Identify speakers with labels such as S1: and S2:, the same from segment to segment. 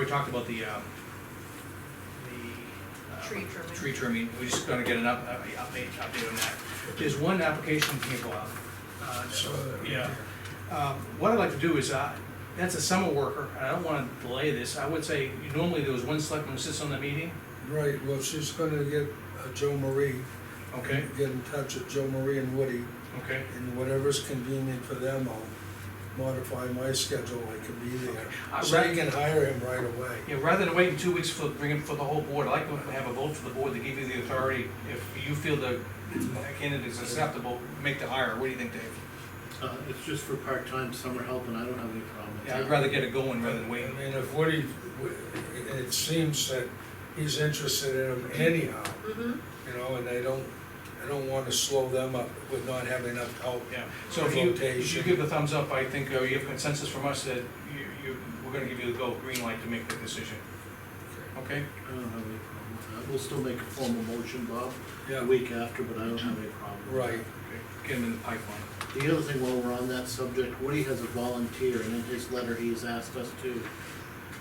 S1: talked about the, um, the. uh,
S2: Tree trimming.
S1: Tree trimming, we just gotta get an up, uh, update, update on that. There's one application that came up. uh,
S3: So,
S1: Yeah. Um, What I'd like to do is, uh, that's a summer worker, and I don't wanna delay this, I would say, normally there was one selectman who sits on the meeting,
S3: Right, well, she's gonna get uh, Joe Marie,
S1: okay,
S3: get in touch with Joe Marie and Woody,
S1: okay.
S3: and whatever's convenient for them, I'll modify my schedule, I can be there.
S1: Uh,
S3: So
S1: right-
S3: you can hire him right away.
S1: Yeah, rather than waiting two weeks for, bring it for the whole board, I'd like to have a vote for the board to give you the authority, if you feel the candidate is acceptable, make the hire, what do you think, Dave?
S4: Uh, it's just for part-time summer help, and I don't have any problem with
S1: Yeah,
S4: that.
S1: I'd rather get it going rather than
S3: I
S1: waiting.
S3: mean, if Woody, it seems that he's interested in him anyhow,
S2: Mm-hmm.
S3: you know, and I don't, I don't wanna slow them up with not having enough help.
S1: Yeah, so if you, if you
S3: Rotation.
S1: give the thumbs up, I think uh, you have consensus from us that you, you, we're gonna give you the go, green light to make the decision, okay?
S4: I don't have any problem with that. We'll still make a formal motion, Bob, a
S3: Yeah,
S4: week after, but I don't have any problem. with
S3: right,
S1: Okay, Get them in the pipeline.
S4: that. The other thing, while we're on that subject, Woody has a volunteer, and in his letter, he has asked us to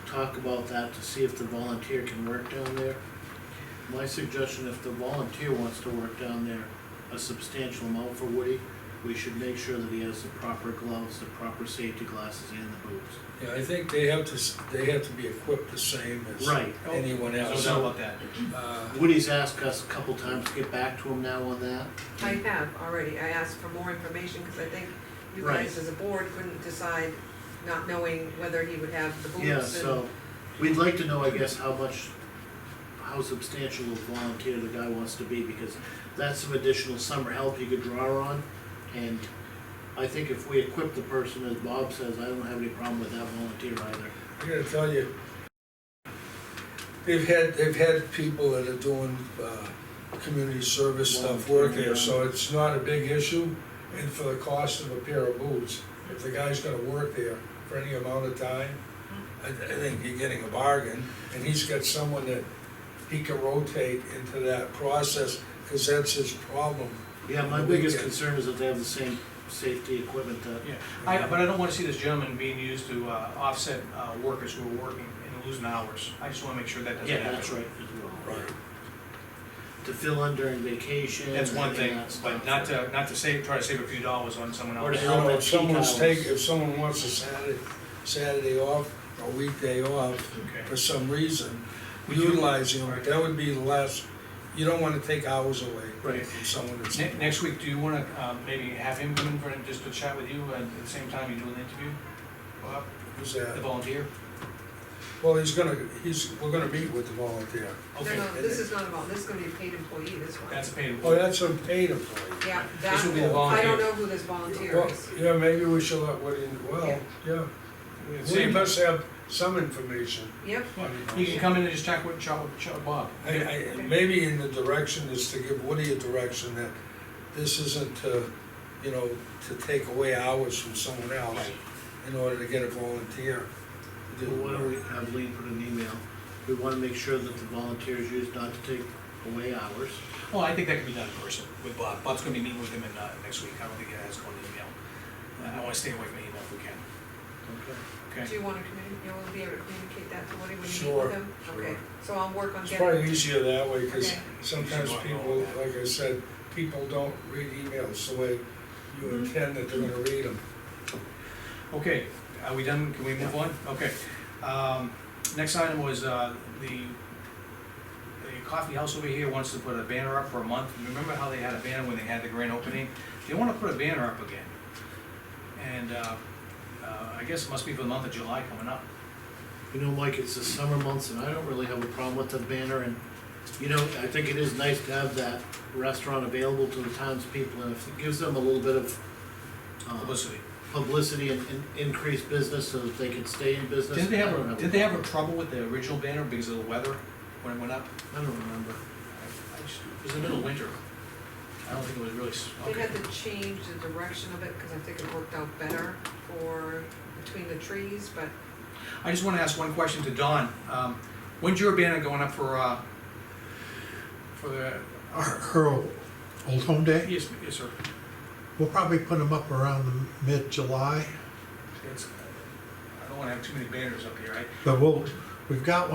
S4: talk about that, to see if the volunteer can work down there. My suggestion, if the volunteer wants to work down there, a substantial amount for Woody, we should make sure that he has the proper gloves, the proper safety glasses, and the boots.
S3: yeah, I think they have to, s- they have to be equipped the same as
S4: Right.
S3: anyone
S1: No
S3: else.
S1: doubt about that.
S3: Uh,
S4: Woody's asked us a couple times to get back to him now on that.
S2: I
S1: Mm-hmm.
S2: have already, I asked for more information, because I think you
S4: Right.
S2: guys as a board couldn't decide, not knowing whether he would have the
S4: Yeah,
S2: boots and.
S4: so, we'd like to know, I guess, how much, how substantial a volunteer the guy wants to be, because that's some additional summer help you could draw on. And I think if we equip the person, as Bob says, I don't have any problem with that volunteer either.
S3: I gotta tell you, they've had, they've had people that are doing, uh, community service stuff work there, so it's not a big issue. And for the cost of a pair of boots, if the guy's gonna work there for any amount of time, I, I think you're getting a bargain. And he's got someone that he can rotate into that process, cause that's his problem.
S4: Yeah, my biggest concern is that they have the same safety equipment that,
S1: Yeah, I, but I don't wanna see this gentleman being used to, uh, offset, uh, workers who are working and losing hours. I just wanna make sure that doesn't
S4: yeah,
S1: happen.
S4: that's right, as well.
S3: Right.
S4: To fill in during vacation.
S1: That's one
S4: and
S1: thing,
S4: that stuff.
S1: but not to, not to save, try to save a few dollars on someone
S4: Or
S1: else.
S4: to
S3: You
S4: help
S3: know,
S4: at
S3: if
S4: peak
S3: someone's
S4: hours.
S3: take, if someone wants a Saturday, Saturday off, a weekday off,
S1: Okay.
S3: for some reason,
S1: Would you-
S3: utilizing them, that would be less, you don't wanna take hours away
S4: Right.
S3: from someone that's.
S1: Ne- Next week, do you wanna, uh, maybe have him come in for, just to chat with you at the same time you do an interview? Bob,
S3: Who's
S1: The
S3: that?
S1: volunteer?
S3: Well, he's gonna, he's, we're gonna meet with the volunteer.
S1: Okay,
S2: No, no, this is not about, this is gonna be a paid employee, this one.
S1: that's a paid.
S3: Oh, that's a paid employee.
S2: Yeah,
S1: This
S2: that,
S1: will be the
S2: I
S1: volunteer.
S2: don't know who this volunteer
S3: Well,
S2: is.
S3: Yeah, maybe we should let Woody, well, yeah, we
S1: Same.
S3: must have some information.
S2: Yep,
S1: You can come in and just check with, chat with, chat with Bob.
S3: I, I, maybe in the direction is to give Woody a direction that this isn't to, you know, to take away hours from someone else in order to get a volunteer. to do
S4: Well, why don't
S3: work.
S4: we have Lean put an email? We wanna make sure that the volunteers use not to take away hours.
S1: Well, I think that can be done in person with Bob. Bob's gonna be meeting with him in, uh, next week. I don't think he has gone to email. Uh, I wanna stay away from email if we can,
S4: Okay.
S2: do
S1: okay?
S2: you wanna communicate, you wanna be able to communicate that to Woody when you meet
S3: Sure,
S2: with him?
S3: sure.
S2: Okay, so I'll work on
S3: It's
S2: getting,
S3: probably easier that way, because
S2: Okay.
S3: sometimes people, like I said, people don't read emails the way you
S2: Mhm.
S3: intend that they're gonna read them.
S1: Okay, are we done? Can we move on? Okay. Um, next item was, uh, the, the coffee house over here wants to put a banner up for a month. Remember how they had a banner when they had the grand opening? They wanna put a banner up again. And, uh, uh, I guess it must be for the month of July coming up.
S4: You know, Mike, it's the summer months and I don't really have a problem with the banner and, you know, I think it is nice to have that restaurant available to the townspeople and if it gives them a little bit of uh,
S1: Publicity.
S4: publicity and and increased business so that they can stay in business.
S1: Didn't they
S4: I don't
S1: have, did they have a
S4: problem.
S1: trouble with the original banner because of the weather when it went up?
S4: I don't remember.
S1: I- I just- It was the middle of winter. I don't think it was really, s-
S2: they
S1: okay.
S2: had to change the direction of it, cause I think it worked out better for, between the trees, but
S1: I just wanna ask one question to Don. Um, when's your banner going up for, uh, for the,
S5: Our- her Old Home Day.
S1: yes, yes, sir.
S5: We'll probably put them up around the mid-July,
S1: It's, I don't wanna have too many banners up here, right?
S5: but we'll, We've got